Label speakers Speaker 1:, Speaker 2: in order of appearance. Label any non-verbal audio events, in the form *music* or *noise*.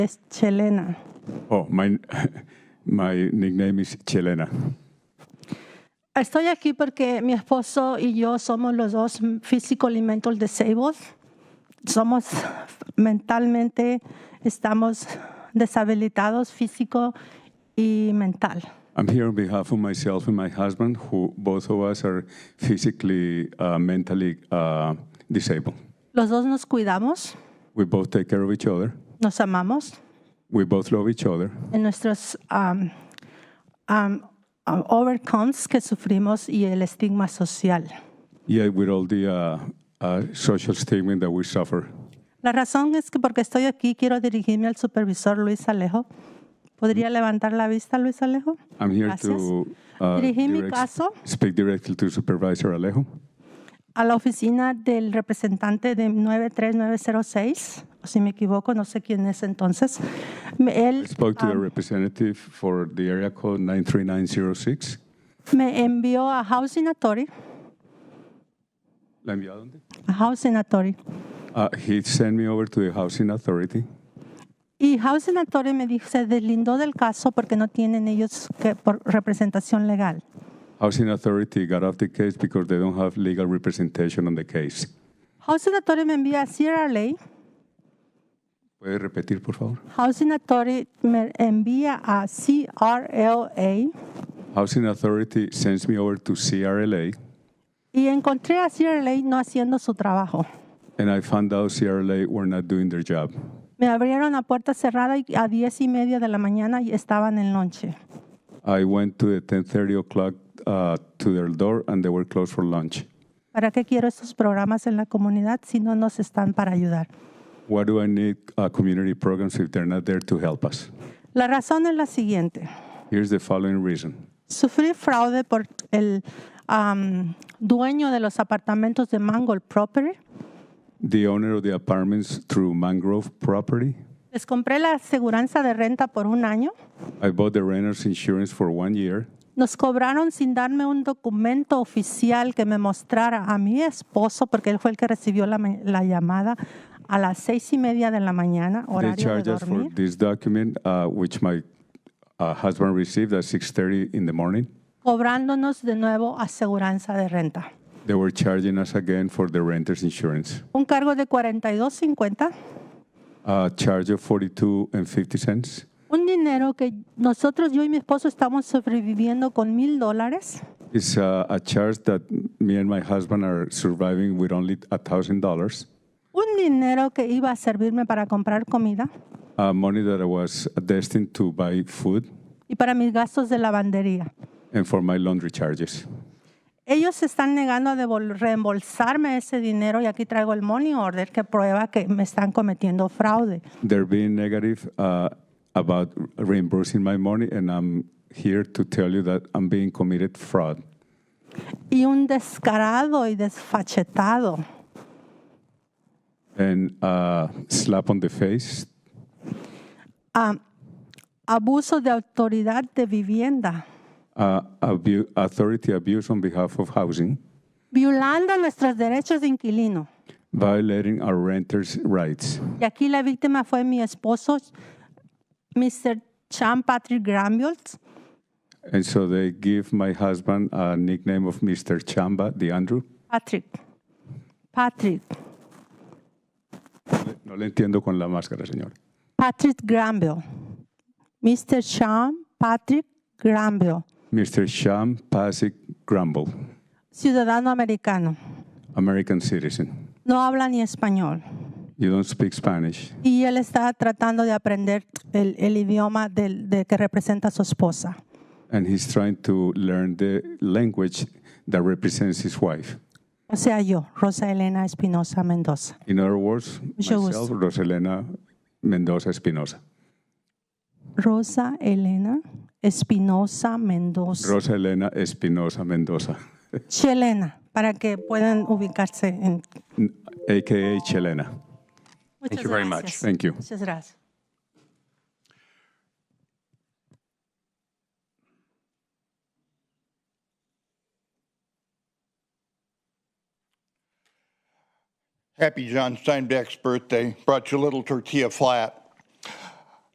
Speaker 1: Es Chelena.
Speaker 2: Oh, my, *laughs* my nickname is Chelena.
Speaker 1: Estoy aquí porque mi esposo y yo somos los dos physical y mental disabled. Somos mentalmente, estamos deshabilitados físico y mental.
Speaker 2: I'm here on behalf of myself and my husband, who both of us are physically, uh, mentally uh, disabled.
Speaker 1: Los dos nos cuidamos,
Speaker 2: We both take care of each other.
Speaker 1: nos amamos
Speaker 2: We both love each other.
Speaker 1: en nuestros um, um, um, overcomes que sufrimos y el estigma social.
Speaker 2: Yet, with all the uh, uh, social stigma that we suffer,
Speaker 1: La razón es que porque estoy aquí quiero dirigirme al supervisor Luis Alejo. ¿Podría levantar la vista, Luis Alejo?
Speaker 2: I'm here
Speaker 1: Gracias.
Speaker 2: to uh,
Speaker 1: Dirigí mi
Speaker 2: direct-
Speaker 1: caso.
Speaker 2: speak directly to Supervisor Alejo.
Speaker 1: a la oficina del representante de 93906, o si me equivoco, no sé quién es entonces. Me-
Speaker 2: I
Speaker 1: Él
Speaker 2: spoke to the representative for the area code 93906.
Speaker 1: me envió a Housing Authority,
Speaker 2: ¿La envió a dónde?
Speaker 1: a Housing Authority,
Speaker 2: Uh, he sent me over to the housing authority.
Speaker 1: y Housing Authority me dijo, se deslindó del caso porque no tienen ellos que, por representación legal.
Speaker 2: Housing authority got off the case because they don't have legal representation on the case.
Speaker 1: Housing Authority me envía a CRLA,
Speaker 2: ¿Puede repetir, por favor?
Speaker 1: Housing Authority me envía a CRLA,
Speaker 2: Housing authority sends me over to CRLA,
Speaker 1: y encontré a CRLA no haciendo su trabajo.
Speaker 2: and I found out CRLA were not doing their job.
Speaker 1: Me abrieron a puerta cerrada y a diez y media de la mañana y estaban en lonche.
Speaker 2: I went to the 10:30 o'clock uh, to their door, and they were closed for lunch.
Speaker 1: ¿Para qué quiero estos programas en la comunidad si no nos están para ayudar?
Speaker 2: Why do I need uh, community programs if they're not there to help us?
Speaker 1: La razón es la siguiente.
Speaker 2: Here's the following reason.
Speaker 1: Sufrí fraude por el am, dueño de los apartamentos de Mangold Property.
Speaker 2: The owner of the apartments through Mangrove Property.
Speaker 1: Les compré la aseguranza de renta por un año.
Speaker 2: I bought the renter's insurance for one year.
Speaker 1: Nos cobraron sin darme un documento oficial que me mostrara a mi esposo, porque él fue el que recibió la, ma- la llamada a las seis y media de la mañana,
Speaker 2: They
Speaker 1: horario de
Speaker 2: charged us for
Speaker 1: dormir.
Speaker 2: this document, uh, which my uh, husband received at 6:30 in the morning.
Speaker 1: cobrándonos de nuevo aseguranza de renta.
Speaker 2: They were charging us again for the renter's insurance.
Speaker 1: Un cargo de 42.50,
Speaker 2: A charge of 42 and 50 cents.
Speaker 1: un dinero que nosotros, yo y mi esposo, estamos sobreviviendo con mil dólares.
Speaker 2: It's uh, a charge that me and my husband are surviving with only $1,000.
Speaker 1: Un dinero que iba a servirme para comprar comida
Speaker 2: Uh, money that I was destined to buy food
Speaker 1: y para mis gastos de lavandería.
Speaker 2: and for my laundry charges.
Speaker 1: Ellos se están negando a devol- reembolsarme ese dinero y aquí traigo el money order que prueba que me están cometiendo fraude.
Speaker 2: They're being negative uh, about reimbursing my money, and I'm here to tell you that I'm being committed fraud.
Speaker 1: Y un descarado y desfachetado
Speaker 2: And uh, slap on the face,
Speaker 1: ah, abuso de autoridad de vivienda.
Speaker 2: uh, abu- authority abuse on behalf of housing,
Speaker 1: violando nuestros derechos de inquilino.
Speaker 2: violating our renters' rights.
Speaker 1: Y aquí la víctima fue mi esposo, Mr. Sean Patrick Granville.
Speaker 2: And so they give my husband a nickname of Mr. Chamba, the Andrew.
Speaker 1: Patrick. Patrick.
Speaker 2: No le entiendo con la máscara, señor.
Speaker 1: Patrick Granville. Mr. Sean Patrick Granville,
Speaker 2: Mr. Sham Pasik Grumble,
Speaker 1: ciudadano americano.
Speaker 2: American citizen.
Speaker 1: No habla ni español.
Speaker 2: You don't speak Spanish.
Speaker 1: Y él está tratando de aprender el, el idioma del, de que representa a su esposa.
Speaker 2: and he's trying to learn the language that represents his wife.
Speaker 1: O sea, yo, Rosa Elena Espinosa Mendoza.
Speaker 2: In other words,
Speaker 1: Mucho gusto.
Speaker 2: myself, Roselena Mendoza Espinosa.
Speaker 1: Rosa Elena Espinosa Mendoza.
Speaker 2: Rosa Elena Espinosa Mendoza,
Speaker 1: Chelena, para que puedan ubicarse en.
Speaker 2: aka Chelena.
Speaker 1: Muchas
Speaker 3: you very much.
Speaker 1: gracias.
Speaker 2: Thank you.
Speaker 1: Muchas gracias.
Speaker 4: Happy John Steinbeck's birthday. Brought you a little tortilla flat.